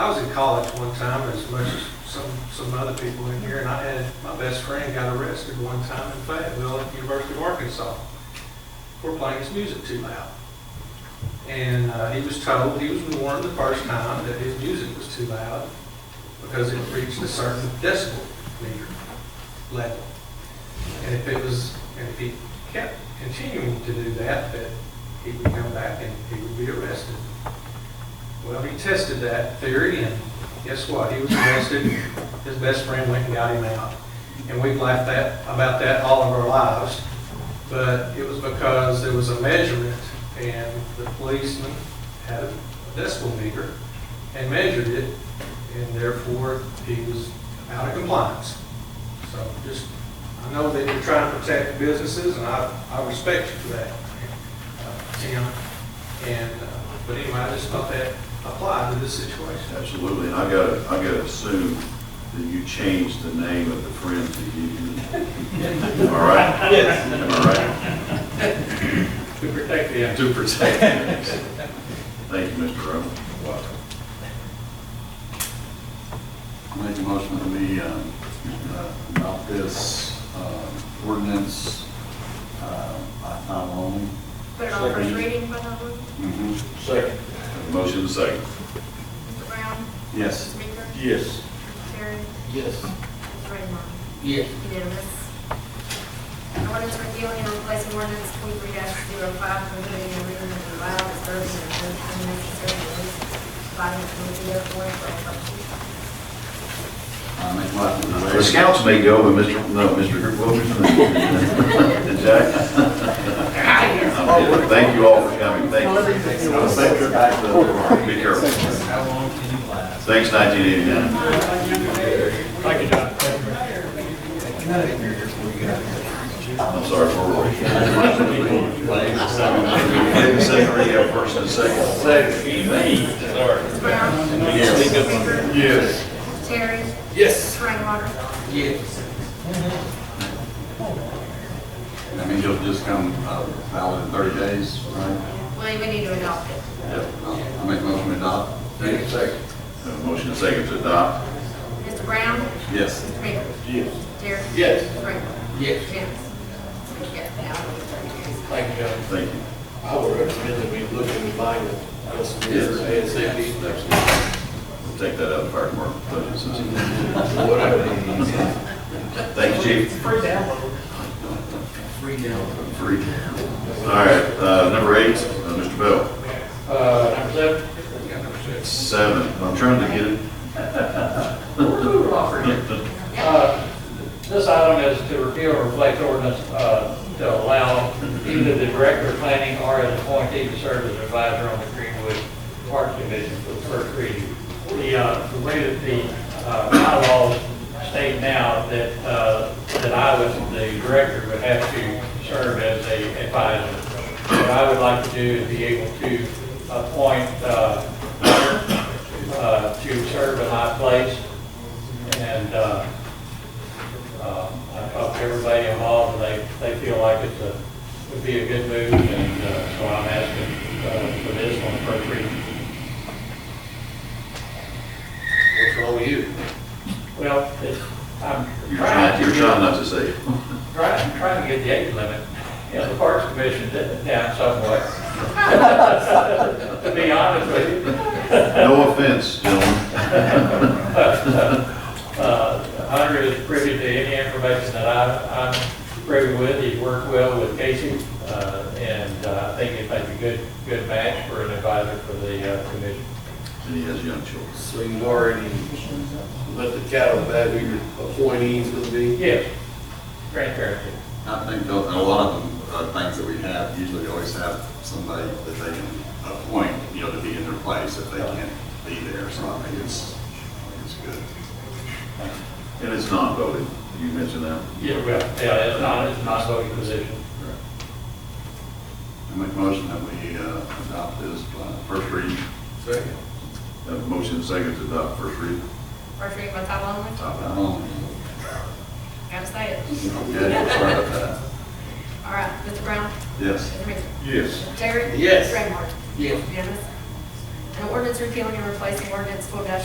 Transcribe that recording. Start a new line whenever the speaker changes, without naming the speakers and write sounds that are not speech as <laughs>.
was in college one time, as much as some, some other people in here, and I had, my best friend got arrested one time in Fayetteville at the University of Arkansas for playing his music too loud. And uh, he was told, he was warned the first time that his music was too loud because it reached a certain decibel meter level. And if it was, and if he kept continuing to do that, that he would come back and he would be arrested. Well, he tested that theory, and guess what? He was arrested. His best friend went and got him out. And we've laughed that, about that all of our lives. But it was because there was a measurement, and the policeman had a decibel meter and measured it, and therefore he was out of compliance. So just, I know that you're trying to protect businesses, and I, I respect you for that, uh, Tim. And, uh, but anyway, I just thought that applied to this situation.
Absolutely, and I gotta, I gotta assume that you changed the name of the Friends of Union. All right?
<laughs>
Yes.
All right,
To protect the,
to protect them. Thank you, Mr. Rowe.
Make a motion that we um, uh, adopt this uh, ordinance uh, by title only.
Put it on first reading by title only.
Second.
Motion second.
Mr. Brown?
Yes.
Mr. Baker?
Yes.
Mr. Terry?
Yes.
Mr. Raymar?
Yes.
Unanimous. An ordinance repealing and replacing ordinance twenty-three 5 prohibiting the reading of the loud, disturbing, and unnecessary noise providing for the airport for all purposes.
I make a motion that we
The
waive-
scouts may go, but Mr., no, Mr. Wilkerson. Jack? Thank you all for coming, thank you. Be careful. Thanks, nineteen eighty-nine.
thank you, John.
I'm sorry for Roy. Wait a second, we have first and second.
Mr. Brown?
Yes.
Mr. Baker?
Yes.
Mr. Terry?
Yes.
Mr. Raymar?
Yes.
That means you'll just come uh, valid in 30 days, right?
Well, we need to adopt it.
Yep. I make a motion to adopt. Second.
Motion and second to adopt.
Mr. Brown?
Yes.
Mr. Baker?
Yes.
Terry?
Yes.
Mr. Raymar?
Yes.
Unanimous. We get it now.
Thank you, John.
Thank you.
I would recommend that we look into buying a, a solicitor, ASAP,
We'll take that out of fire department budget since.
whatever. it is.
Thank you, chief.
Free download.
Free now.
Free. All right, uh, number eight, uh, Mr. Bell.
Uh, number seven?
Seven, I'm trying to get it.
Uh, This item is to repeal or replace ordinance uh, to allow either the director of planning or an appointee to serve as advisor on the Greenwood Park Commission for the first reading. The, uh, the way that the uh, bylaws state now that, uh, that I was, the director would have to serve as a advisor. What I would like to do is be able to appoint, uh, uh, to serve in my place and uh, uh, I talked to everybody involved, and they, they feel like it's a, would be a good move, and uh, so I'm asking uh, for this one for free.
What's wrong with you?
Well, it's, I'm
You're
trying
trying,
to
you're trying
get,
not to say. it.
trying, trying to get the age limit, you know, the Parks Commission did it down somewhat. <laughs> To be honest with you,
No offense, gentlemen.
Uh, Hunter is privy to any information that I, I'm privy with, he's worked well with Casey, uh, and uh, I think it'd make a good, good match for an advisor for the uh, commission.
And he has young children.
So you've already let the cat out of the bag, who your appointees would be?
Yes, transparency.
I think tho- a lot of them, uh, things that we have, usually always have somebody that they can appoint, you know, to be in their place if they can't be there, so I think it's, I think it's good.
And it's non-voting, you mentioned that.
Yeah, well, yeah, it's not, it's not a voting position.
I make a motion that we uh, adopt this uh, first reading.
Second.
Have a motion and second to adopt first reading.
First reading by title only.
Top out.
Um,
Gotta say it.
Okay, sorry about that.
All right, Mr. Brown?
Yes.
Mr. Baker?
Yes.
Terry?
Yes.
Raymar?
Yes.
Unanimous. An ordinance repealing and replacing ordinance twelve